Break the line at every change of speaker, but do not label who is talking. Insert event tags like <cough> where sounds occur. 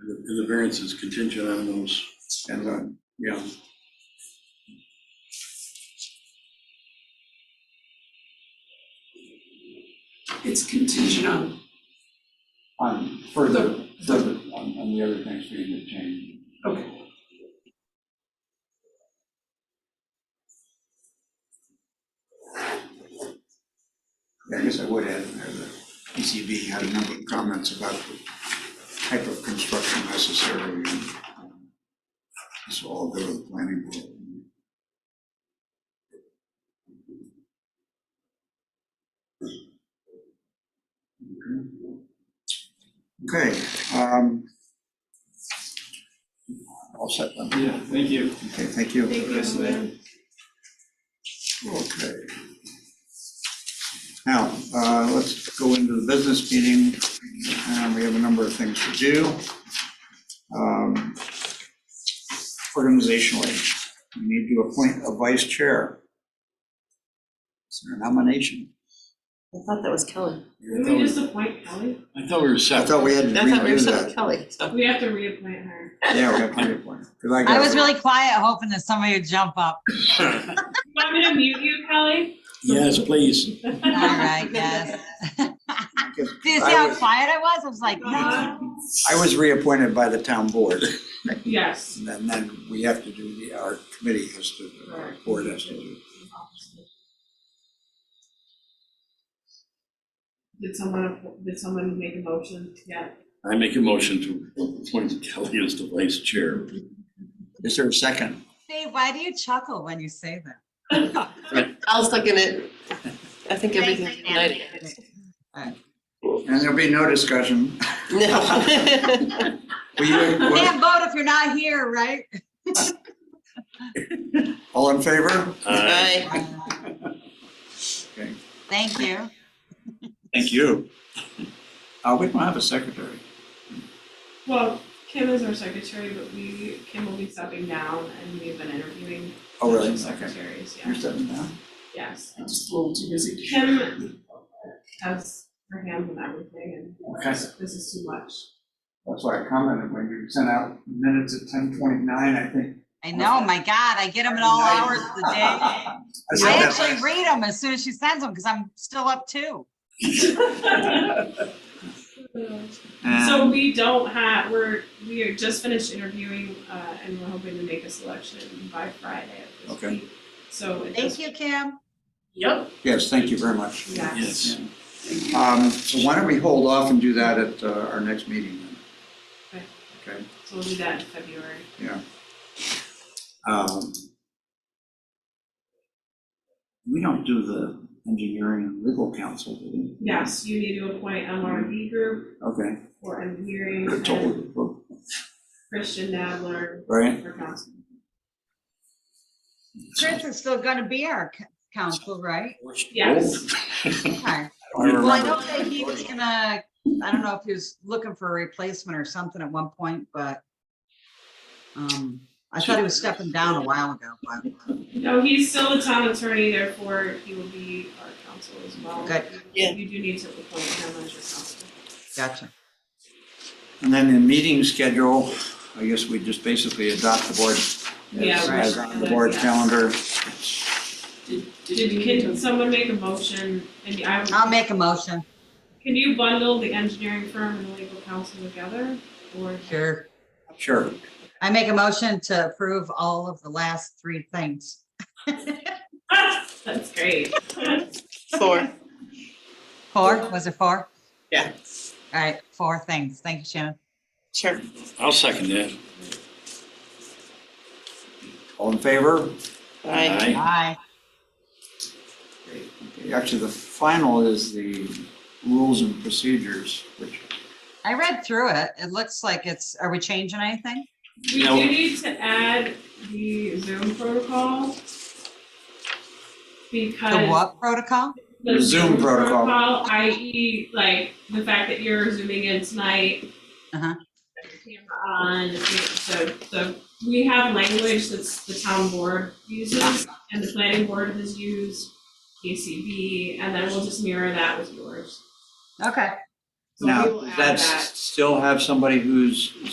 and the variance is contingent on those,
and uh, then,
yeah.
It's contingent on,
on further, further, on, on the other things being the change.
okay,
I guess I would add, uh, in there that PCB had a number of comments about the type of construction necessary, and um, this will all go to the planning board. Okay, um. All set then,
Yeah, thank you.
okay, thank you.
Thank you, Lynn.
Okay. Now, uh, let's go into the business meeting, and we have a number of things to do. Um, Organizationally, we need to appoint a vice chair. Is there a nomination?
I thought that was Kelly.
I
Did
thought
we
we-
just appoint Kelly?
I thought we were
I
set.
thought we had to
I thought we were
redo
still
that.
Kelly, so.
We have to reappoint her.
Yeah, we have to reappoint. 'cause
I
got-
was really quiet, hoping that somebody would jump <laughs> up.
You want me to mute you,
<laughs>
Kelly?
<laughs> Yes, please.
All right, yes.
because
<laughs> Do you see
I
how
was-
quiet I was? I was like, no.
Uh,
I was reappointed by the town board,
Yes.
and then, then we have to do, the our committee has to, our board has to do.
Did someone, did someone make a motion? Yeah.
I make a motion to appoint Kelly as the vice chair.
Is there a second?
Dave, why do you chuckle when you say that?
I was looking at, I think everything's united.
And there'll be no discussion.
<laughs> No.
Will you- will-
Can't vote if you're not here, right?
All in favor?
Uh,
Aye.
Okay.
Thank you.
Thank you. Uh, we don't have a secretary.
Well, Kim is our secretary, but we, Kim will be stepping down and we've been interviewing
Oh, really? Okay.
secretaries,
You're
yeah,
stepping down?
yes.
I'm just a little too busy.
Kim has her hands on everything and
Okay.
this is too much.
That's why I commented when you sent out minutes at ten twenty-nine, I think.
I know, my God, I get them at all hours of the
<laughs>
day. <laughs>
I saw
I
that.
actually read them as soon as she sends them because I'm still up too.
So
<laughs>
<laughs>
And
we don't have, we're, we are just finished interviewing, uh, and we're hoping to make a selection by Friday of this
Okay.
week. So it
Thank
just,
you, Kim.
yep,
Yes, thank you very much.
yes.
Yes.
Um, so why don't we hold off and do that at uh, our next meeting then?
So we'll do that in February.
Um, We don't do the engineering and legal counsel, do we?
Yes, you need to appoint MRV group
Okay.
for engineering and
Totally.
Christian Nadler
Right?
for council.
Chris is still gonna be our c-
<laughs>
counsel, right?
Yes.
Okay.
I
Well, I
remember.
know that he was gonna, I don't know if he was looking for a replacement or something at one point, but um, I thought he was stepping down a while ago, but
No, he's still the town attorney, therefore he will be our counsel as well.
Good.
Yeah.
You do need to appoint him as your counsel.
gotcha.
And then the meeting schedule, I guess we just basically adopt the board, as-
Yeah, right.
as on the board
Yeah.
calendar.
Did,
Did, can someone make a motion, and I would.
I'll make a motion.
Can you bundle the engineering firm and the legal counsel together, or?
Sure.
Sure.
I make a motion to approve all of the last three things.
<laughs> That's great.
Four.
Four, was it four?
Yeah.
All right, four things. Thank you, Shannon.
Sure.
I'll second that.
All in favor?
Aye.
Aye.
Aye.
Okay, Actually, the final is the rules and procedures, which,
I read through it. It looks like it's, are we changing anything?
We
No.
do need to add the Zoom protocol. Because.
The what protocol?
the
Zoom protocol.
i.e. like the fact that you're zooming in tonight.
Uh-huh.
Camera on, so, so we have language that's the town board uses and the planning board has used, KCB, and then we'll just mirror that with yours.
Okay.
So we
now,
will add
that's
that.
still have somebody who's